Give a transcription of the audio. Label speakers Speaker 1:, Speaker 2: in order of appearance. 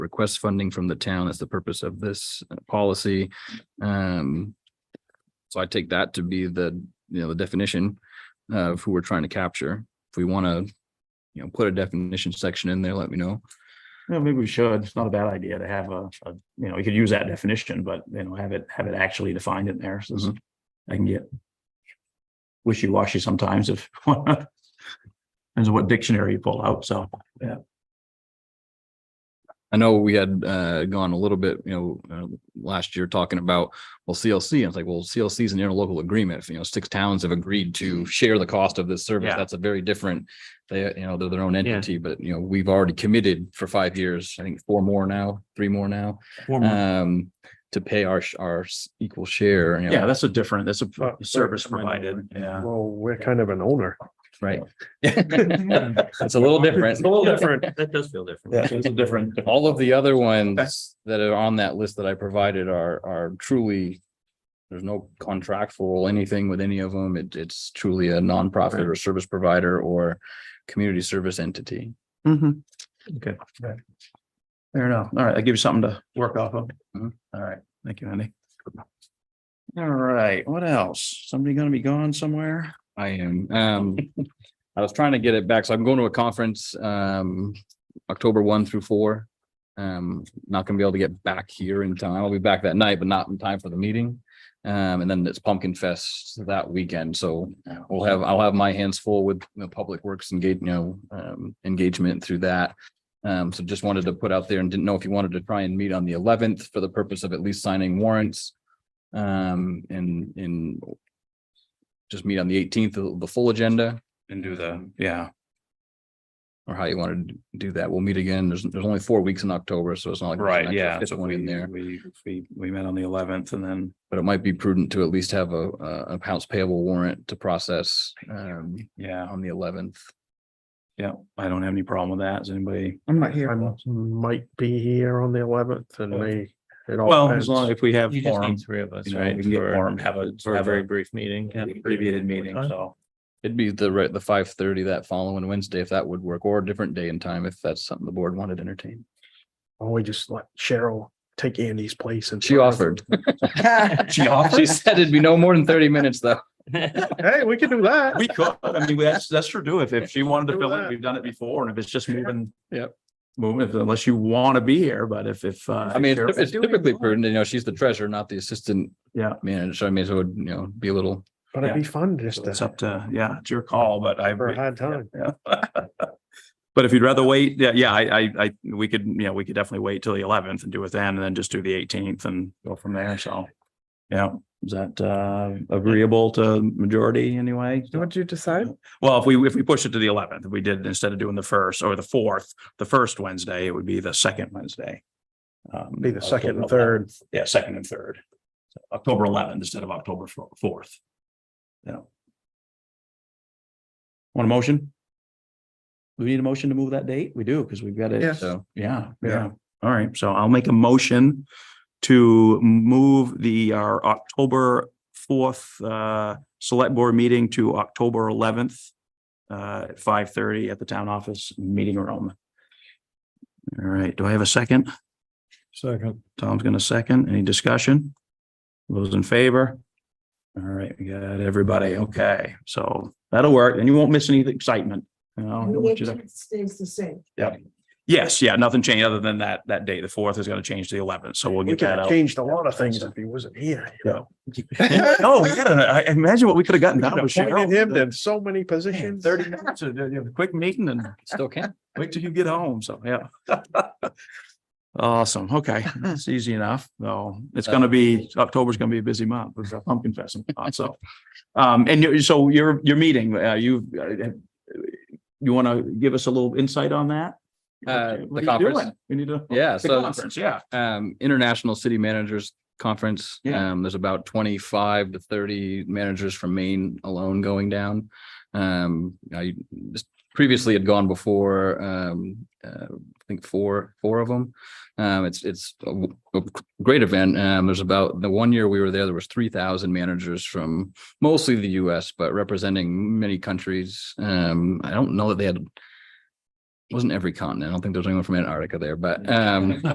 Speaker 1: request funding from the town. That's the purpose of this uh, policy. Um, so I take that to be the, you know, the definition of who we're trying to capture. If we want to, you know, put a definition section in there, let me know.
Speaker 2: Yeah, maybe we should. It's not a bad idea to have a, a, you know, you could use that definition, but you know, have it, have it actually defined in there. So it's- I can get wishy-washy sometimes if depends on what dictionary you pull out. So,
Speaker 1: I know we had uh gone a little bit, you know, uh, last year talking about, well, CLC, I was like, well, CLC is an interlocal agreement. If, You know, six towns have agreed to share the cost of this service.
Speaker 2: Yeah.
Speaker 1: That's a very different, they, you know, they're their own entity, but you know, we've already committed for five years, I think four more now, three more now, um, to pay our, sh- our s- equal share, you know,
Speaker 2: yeah, that's a different, that's a
Speaker 3: Uh,
Speaker 2: service
Speaker 3: right, right.
Speaker 2: provided. Yeah.
Speaker 3: Well, we're kind of an owner.
Speaker 1: right? It's a little different.
Speaker 3: It's a
Speaker 2: Oh,
Speaker 3: little different.
Speaker 4: That does feel different.
Speaker 2: So It's a different.
Speaker 1: All of the other ones that are on that list that I provided are, are truly. There's no contractual anything with any of them. It, it's truly a nonprofit or service provider or community service entity.
Speaker 2: Mhm. Okay. Fair enough. All right, I give you something to work off of.
Speaker 1: Mhm.
Speaker 2: All right, thank you, Andy. All right, what else? Somebody gonna be gone somewhere?
Speaker 1: I am, um, I was trying to get it back. So I'm going to a conference, um, October one through four. Um, not gonna be able to get back here in time. I'll be back that night, but not in time for the meeting. Um, and then it's Pumpkin Fest that weekend. So we'll have, I'll have my hands full with the public works and gate, you know, um, engagement through that. Um, so just wanted to put out there and didn't know if you wanted to try and meet on the eleventh for the purpose of at least signing warrants. Um, and, and just meet on the eighteenth, the the full agenda
Speaker 2: And do the, yeah,
Speaker 1: or how you want to do that. We'll meet again. There's, there's only four weeks in October, so it's not like. there's an
Speaker 2: right,
Speaker 1: extra
Speaker 2: yeah.
Speaker 1: fifth
Speaker 2: So
Speaker 1: one in
Speaker 2: we-
Speaker 1: there,
Speaker 2: We, we, we met on the eleventh and then,
Speaker 1: but it might be prudent to at least have a, a a accounts payable warrant to process, um,
Speaker 2: yeah,
Speaker 1: on the eleventh.
Speaker 2: yeah, I don't have any problem with that. Is anybody?
Speaker 3: I'm not here. I might be here on the eleventh and may. it all
Speaker 2: Well, as
Speaker 3: depends.
Speaker 2: long if we have
Speaker 4: You just
Speaker 2: forum,
Speaker 4: need three of us,
Speaker 2: you know,
Speaker 4: right?
Speaker 2: we can get
Speaker 4: for-
Speaker 2: forum, have a,
Speaker 4: For a
Speaker 2: have
Speaker 4: very
Speaker 2: a
Speaker 4: brief meeting. yeah.
Speaker 2: abbreviated meeting, so.
Speaker 1: It'd be the right, the five thirty that following Wednesday, if that would work, or a different day and time, if that's something the board wanted to entertain.
Speaker 3: Why don't we just let Cheryl take Andy's place and.
Speaker 1: She offered.
Speaker 2: She
Speaker 1: She
Speaker 2: offered?
Speaker 1: said it'd be no more than thirty minutes, though.
Speaker 3: Hey, we can do that.
Speaker 2: We could, I mean, that's, that's true, do if, if she wanted to
Speaker 3: Do
Speaker 2: fill it,
Speaker 3: that.
Speaker 2: we've done it before, and if it's just moving.
Speaker 1: Yep.
Speaker 2: Moving, if- unless you want to be here, but if, if.
Speaker 1: I mean, it's it's typically prudent, you know, she's the treasurer, not the assistant.
Speaker 2: Yeah.
Speaker 1: Manager, I mean, so it would, you know, be a little.
Speaker 3: But it'd be fun just
Speaker 2: It's
Speaker 3: to,
Speaker 2: up to, yeah, it's your call, but I.
Speaker 3: for a hard time.
Speaker 2: Yeah. But if you'd rather wait, yeah, yeah, I, I, I, we could, you know, we could definitely wait till the eleventh and do it then, and then just do the eighteenth and go from there, so. Yeah, is that, uh, agreeable to majority anyway?
Speaker 5: What'd you decide?
Speaker 2: Well, if we, if we push it to the eleventh, if we did, instead of doing the first or the fourth, the first Wednesday, it would be the second Wednesday. Um,
Speaker 3: Be the second and
Speaker 2: October
Speaker 3: third.
Speaker 2: 11th. Yeah, second and third. So October eleventh instead of October fo- fourth. Yeah. Want a motion? Do we need a motion to move that date? We do, because we've got it.
Speaker 3: Yeah.
Speaker 1: So
Speaker 2: Yeah,
Speaker 3: Yeah.
Speaker 2: yeah. All right, so I'll make a motion to move the, our October fourth, uh, select board meeting to October eleventh, uh, at five thirty at the town office meeting room. All right, do I have a second?
Speaker 3: Second.
Speaker 2: Tom's gonna second. Any discussion? Those in favor? All right, we got everybody. Okay, so that'll work and you won't miss any excitement. You know, I don't want you to-
Speaker 5: Stays the same.
Speaker 2: Yes, yeah, nothing changed other than that, that date, the fourth is gonna change to the eleventh, so we'll
Speaker 3: We
Speaker 2: get
Speaker 3: could
Speaker 2: that
Speaker 3: have
Speaker 2: out.
Speaker 3: changed a lot of things if he wasn't here, you know.
Speaker 2: No, yeah, I I imagine what we could have gotten
Speaker 3: We
Speaker 2: done
Speaker 3: could
Speaker 2: with
Speaker 3: have appointed him
Speaker 2: Cheryl.
Speaker 3: to so many
Speaker 2: Man,
Speaker 3: positions.
Speaker 2: Thirty minutes, of- of a quick meeting and
Speaker 1: still can.
Speaker 2: wait till you get home, so, yeah. Awesome, okay, it's easy enough, though. It's gonna be, October's gonna be a busy month, with the pumpkin fest and whatnot, uh, so. Um, and you, so your, your meeting, uh, you, uh, you wanna give us a little insight on that?
Speaker 1: Uh,
Speaker 2: What
Speaker 1: the
Speaker 2: are you
Speaker 1: conference?
Speaker 2: doing? We need to.
Speaker 1: Yeah,
Speaker 2: The
Speaker 1: so
Speaker 2: conference, yeah.
Speaker 1: um, International City Managers Conference.
Speaker 2: Yeah.
Speaker 1: Um, there's about twenty-five to thirty managers from Maine alone going down. Um, I just previously had gone before, um, uh, I think four, four of them. Um, it's, it's a w- a great event. Um, there's about, the one year we were there, there was three thousand managers from mostly the US, but representing many countries. Um, I don't know that they had, wasn't every continent. I don't think there's anyone from Antarctica there, but, um,